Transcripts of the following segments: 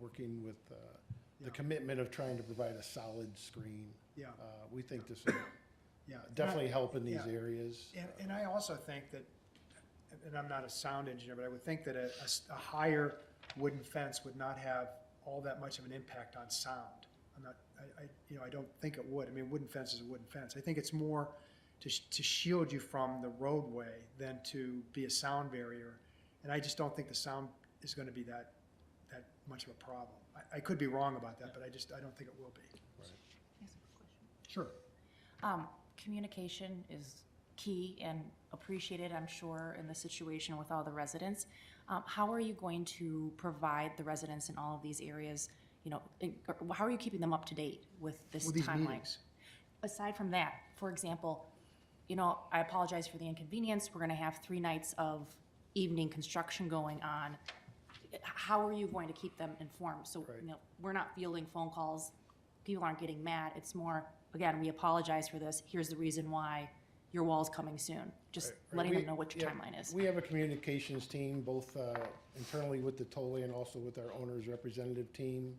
working with uh, Yeah. the commitment of trying to provide a solid screen. Yeah, Uh, We think this will yeah. definitely help in these yeah. areas. And, and I also think that, and I'm not a sound engineer, but I would think that a, a s- a higher wooden fence would not have all that much of an impact on sound. I'm not, I, I, you know, I don't think it would. I mean, wooden fence is a wooden fence. I think it's more to, sh- to shield you from the roadway than to be a sound barrier. And I just don't think the sound is gonna be that, that much of a problem. I, I could be wrong about that, but I just, I don't think it will be. Yes, of course. Sure. Um, Communication is key and appreciated, I'm sure, in the situation with all the residents. Um, How are you going to provide the residents in all of these areas, you know, in- or how are you keeping them up to date with this Well, these timeline? meetings. Aside from that, for example, you know, I apologize for the inconvenience, we're gonna have three nights of evening construction going on. How are you going to keep them informed? So, you know, we're not fielding phone calls, people aren't getting mad, it's more, again, we apologize for this, here's the reason why your wall's coming soon. Just Right, letting we- them know what your yeah, timeline is. We have a communications team, both uh, internally with the Tolley and also with our owner's representative team,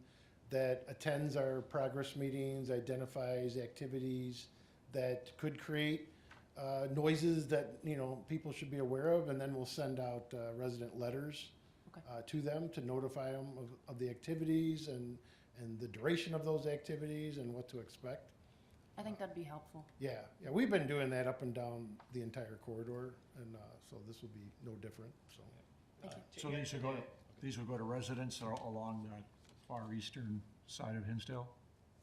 that attends our progress meetings, identifies activities that could create uh, noises that, you know, people should be aware of, and then we'll send out uh, resident letters Okay. uh, to them to notify them of, of the activities and, and the duration of those activities and what to expect. I think that'd be helpful. Yeah, yeah, we've been doing that up and down the entire corridor, and uh, so this will be no different, so. So these would go to, these would go to residents that are along the far eastern side of Hinsdale?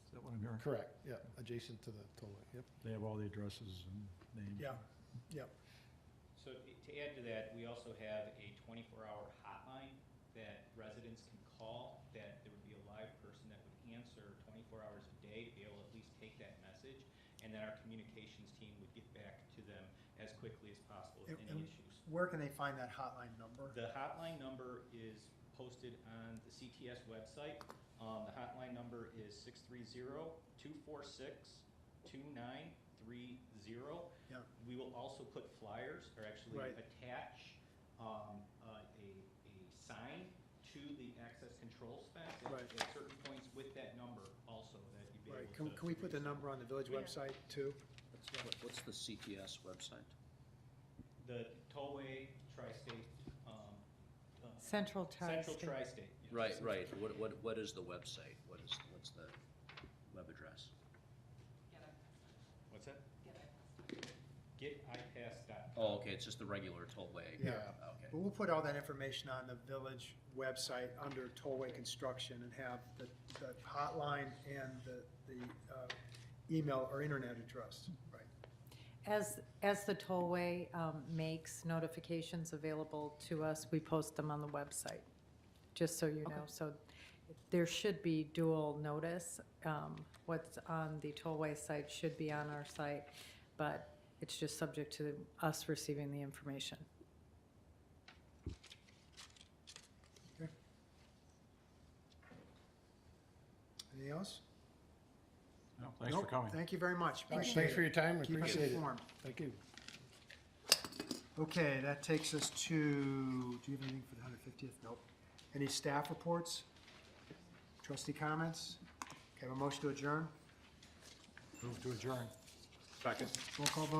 Is that what I'm hearing? Correct, yeah, adjacent to the tollway, yep. They have all the addresses and names. Yeah, yeah. So to to add to that, we also have a twenty-four hour hotline that residents can call, that there would be a live person that would answer twenty-four hours a day to be able to at least take that message, and then our communications team would get back to them as quickly as possible with And- any and- issues. Where can they find that hotline number? The hotline number is posted on the CTS website. Um, the hotline number is six three zero two four six two nine three zero. Yeah. We will also put flyers, or actually Right. attach, um, uh, a, a sign to the access control fence at- Right. at certain points with that number also, that you'd be able Right, to. can, can we to put the reach. number on the village Yeah. website too? What- What's the CTS website? The tollway, tri-state, um, uh, Central Tri-State. Central tri-state. yes. Right, right, what, what, what is the website? What is, what's the web address? What's that? Get iPass.com. Oh, okay, it's just the regular tollway. Yeah. Okay, But we'll put all that information on the village website under tollway construction and have the, the hotline and the, the, uh, email or internet address, right? As, as the tollway um, makes notifications available to us, we post them on the website, just so you know. So there should be dual notice. Um, What's on the tollway site should be on our site, but it's just subject to us receiving the information. Anything else? No, Thanks for Nope. coming. Thank you very much. Appreciate Thanks it. for your time, I Keep us appreciate it. informed. Thank you. Okay, that takes us to, do you have anything for the hundred fiftieth? Nope. Any staff reports? Trustee comments? Okay, have a motion to adjourn? Move to adjourn. Roll call vote?